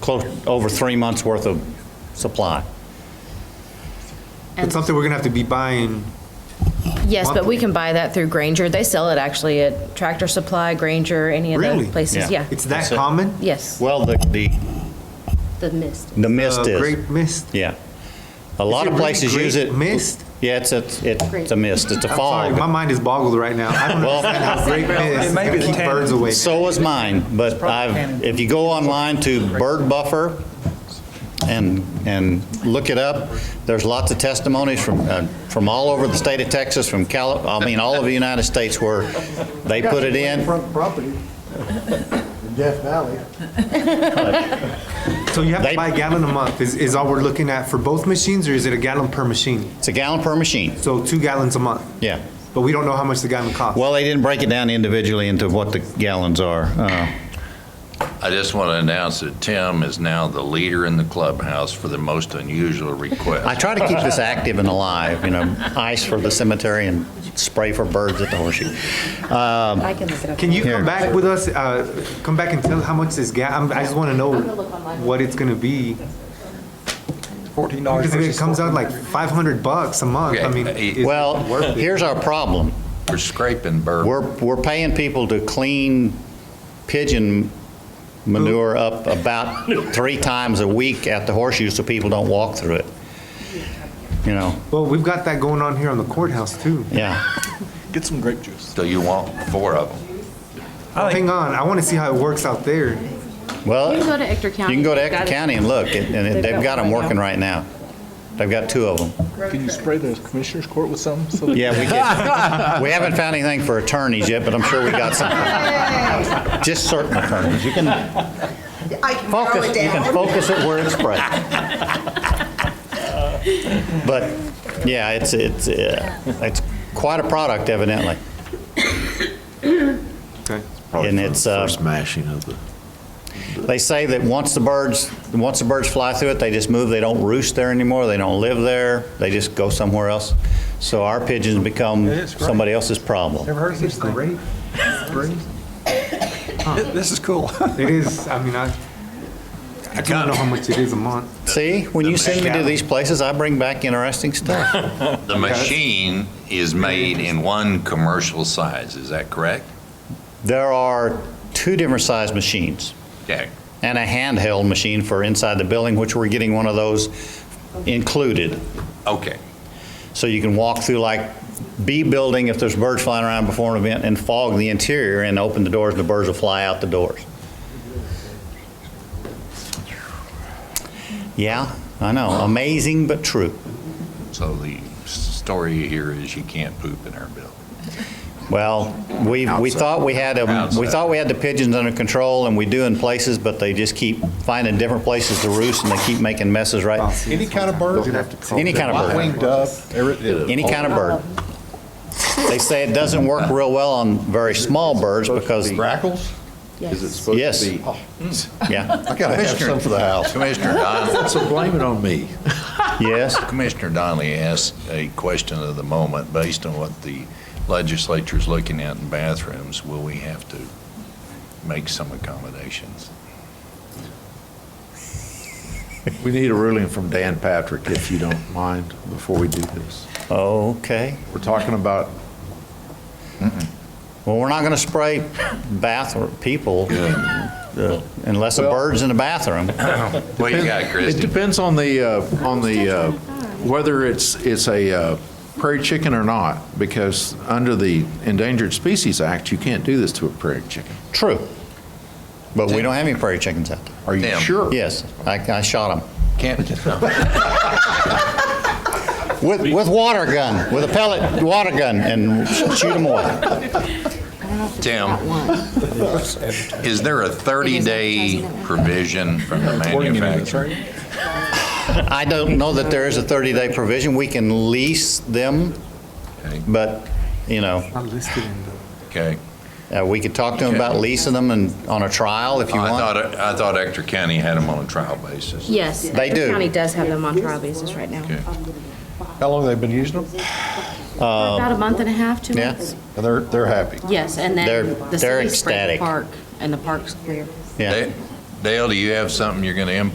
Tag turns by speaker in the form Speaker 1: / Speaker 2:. Speaker 1: close, over three months' worth of supply.
Speaker 2: It's something we're gonna have to be buying,
Speaker 3: Yes, but
Speaker 2: Monthly.
Speaker 3: we can buy that through Granger. They sell it actually at Tractor Supply, Granger, any of
Speaker 2: Really?
Speaker 3: those
Speaker 1: Yeah.
Speaker 3: places. Yeah.
Speaker 2: it's that
Speaker 1: That's it.
Speaker 2: common?
Speaker 3: Yes,
Speaker 1: Well, the, the,
Speaker 3: the mist.
Speaker 1: the mist
Speaker 2: Uh,
Speaker 1: is,
Speaker 2: Grape mist?
Speaker 1: yeah. A lot
Speaker 2: it
Speaker 1: of
Speaker 2: really
Speaker 1: places use
Speaker 2: grape
Speaker 1: it.
Speaker 2: mist?
Speaker 1: Yeah, it's, a- it's, it's a mist, it's a
Speaker 2: Sorry, my
Speaker 1: fog.
Speaker 2: mind is boggled right now. I don't
Speaker 1: Well-
Speaker 2: understand how grape mist is
Speaker 4: It may
Speaker 2: gonna
Speaker 4: be the
Speaker 2: keep
Speaker 4: tannin.
Speaker 2: birds away.
Speaker 1: So is mine, but I've, if you go online to Bird Buffer and, and look it up, there's lots of testimonies from, uh, from all over the state of Texas, from Cali, I mean, all of the United States where they put it in.
Speaker 5: Front property in Death Valley.
Speaker 2: So you have
Speaker 1: They-
Speaker 2: to buy a gallon a month is, is all we're looking at for both machines or is it a gallon per machine?
Speaker 1: It's a gallon per machine,
Speaker 2: So two gallons a month,
Speaker 1: yeah.
Speaker 2: but we don't know how much the gallon costs.
Speaker 1: Well, they didn't break it down individually into what the gallons are. Uh,
Speaker 6: I just want to announce that Tim is now the leader in the clubhouse for the most unusual
Speaker 1: I
Speaker 6: request.
Speaker 1: try to keep this active and alive, you know, ice for the cemetery and spray for birds at the horseshoe. Um,
Speaker 7: I can look it up.
Speaker 2: Can you
Speaker 1: Here.
Speaker 2: come back with us, uh, come back and tell how much this ga, I'm- I just wanna know what it's gonna be.
Speaker 4: Fourteen dollars
Speaker 2: Because if it
Speaker 4: versus
Speaker 2: comes out
Speaker 4: fourteen.
Speaker 2: like five hundred bucks a month, I mean.
Speaker 6: Okay,
Speaker 2: is it
Speaker 1: Well,
Speaker 2: worth it?
Speaker 1: here's our problem.
Speaker 6: We're scraping bird.
Speaker 1: We're, we're paying people to clean pigeon manure up about three times a week at the horseshoe so people don't walk through it. You know,
Speaker 2: Well, we've got that going on here on the courthouse too.
Speaker 1: yeah.
Speaker 4: Get some grape juice.
Speaker 6: So you want four of them.
Speaker 4: I think
Speaker 2: Hang on, I wanna see how it works out there.
Speaker 1: Well,
Speaker 3: You
Speaker 1: you
Speaker 3: can go to Ector County.
Speaker 1: can go to
Speaker 3: They've got
Speaker 1: Ector
Speaker 3: it.
Speaker 1: County and look, and and they've got them working right now. They've got two of them.
Speaker 4: Can you spray the commissioner's court with some? so that-
Speaker 1: Yeah, we did. We haven't found anything for attorneys yet, but I'm sure we got something. Just certain attorneys. You can
Speaker 8: I can narrow
Speaker 1: focus,
Speaker 8: it
Speaker 1: you can
Speaker 8: down.
Speaker 1: focus it where it's bright. But, yeah, it's, it's, uh, it's quite a product evidently.
Speaker 2: Okay.
Speaker 1: And it's, uh,
Speaker 5: First mashing of the.
Speaker 1: They say that once the birds, once the birds fly through it, they just move. They don't roost there anymore. They don't live there. They just go somewhere else. So our pigeons
Speaker 4: It
Speaker 1: become
Speaker 4: is great.
Speaker 1: somebody else's problem.
Speaker 4: Never heard of this thing.
Speaker 2: Great.
Speaker 4: This is cool.
Speaker 2: It is, I mean, I, I don't know how much it is a month.
Speaker 1: See, when you send me to these places, I bring back interesting stuff.
Speaker 6: The machine is made in one commercial size, is that correct?
Speaker 1: There are two different size machines
Speaker 6: Okay.
Speaker 1: and a handheld machine for inside the building, which we're getting one of those included.
Speaker 6: Okay.
Speaker 1: So you can walk through like B building if there's birds flying around before an event and fog the interior and open the doors and the birds will fly out the doors. Yeah, I know. Amazing but true.
Speaker 6: So the story here is you can't poop in our building.
Speaker 1: Well, we, we
Speaker 5: Outside.
Speaker 1: thought we had, 'em- we
Speaker 6: Outside.
Speaker 1: thought we had the pigeons under control, and we do in places, but they just keep finding different places to roost, and they keep making messes, right?
Speaker 4: Any kind of bird?
Speaker 2: You'll have to call
Speaker 1: Any
Speaker 2: them.
Speaker 1: kind of bird.
Speaker 4: Winged dove, everything.
Speaker 1: Any kind of bird. They say it doesn't work real well on very small birds because,
Speaker 5: Grackles? Is it supposed
Speaker 1: Yes.
Speaker 5: to be?
Speaker 1: yeah,
Speaker 5: I gotta have some for the house.
Speaker 6: Commissioner Donnelly,
Speaker 5: So blame it on me.
Speaker 1: yes.
Speaker 6: Commissioner Donnelly asked a question of the moment, based on what the legislature's looking at in bathrooms, will we have to make some accommodations?
Speaker 5: We need a ruling from Dan Patrick, if you don't mind, before we do this.
Speaker 1: Okay.
Speaker 5: We're talking about
Speaker 1: Well, we're not going to spray bathroom, people uh, unless a
Speaker 5: Well-
Speaker 1: bird's in the bathroom.
Speaker 6: What you got,
Speaker 5: It
Speaker 6: Christie?
Speaker 5: depends on the, uh, on the, uh, whether it's, it's a uh, prairie chicken or not, because under the Endangered Species Act, you can't do this to a prairie chicken.
Speaker 1: True. But we don't have any prairie chickens out there.
Speaker 5: Are you
Speaker 6: Damn.
Speaker 5: sure?
Speaker 1: Yes, I, I shot them.
Speaker 6: Can't,
Speaker 1: With, with water gun, with a pellet water gun and shoot them away.
Speaker 6: Tim, is there a 30-day provision from the manufacturer?
Speaker 1: I don't know that there is a 30-day provision. We can lease them,
Speaker 6: Okay.
Speaker 1: but, you know,
Speaker 2: Not listed in the.
Speaker 6: Okay.
Speaker 1: uh, we could talk to them about leasing them and, on a trial if you
Speaker 6: Oh, I thought,
Speaker 1: want.
Speaker 6: I thought Ector County had them on a trial basis.
Speaker 3: Yes.
Speaker 1: They
Speaker 3: Ector
Speaker 1: do.
Speaker 3: County does have them on trial basis right now.
Speaker 6: Okay.
Speaker 4: How long they been using them?
Speaker 3: For About a month and a half, two
Speaker 1: yeah.
Speaker 3: months.
Speaker 5: And they're, they're happy.
Speaker 3: Yes, and
Speaker 1: They're-
Speaker 3: then the
Speaker 1: they're
Speaker 3: city sprayed
Speaker 1: ecstatic.
Speaker 3: the park, and the park's clear.
Speaker 1: Yeah.
Speaker 6: They- Dale, do you have something you're going to input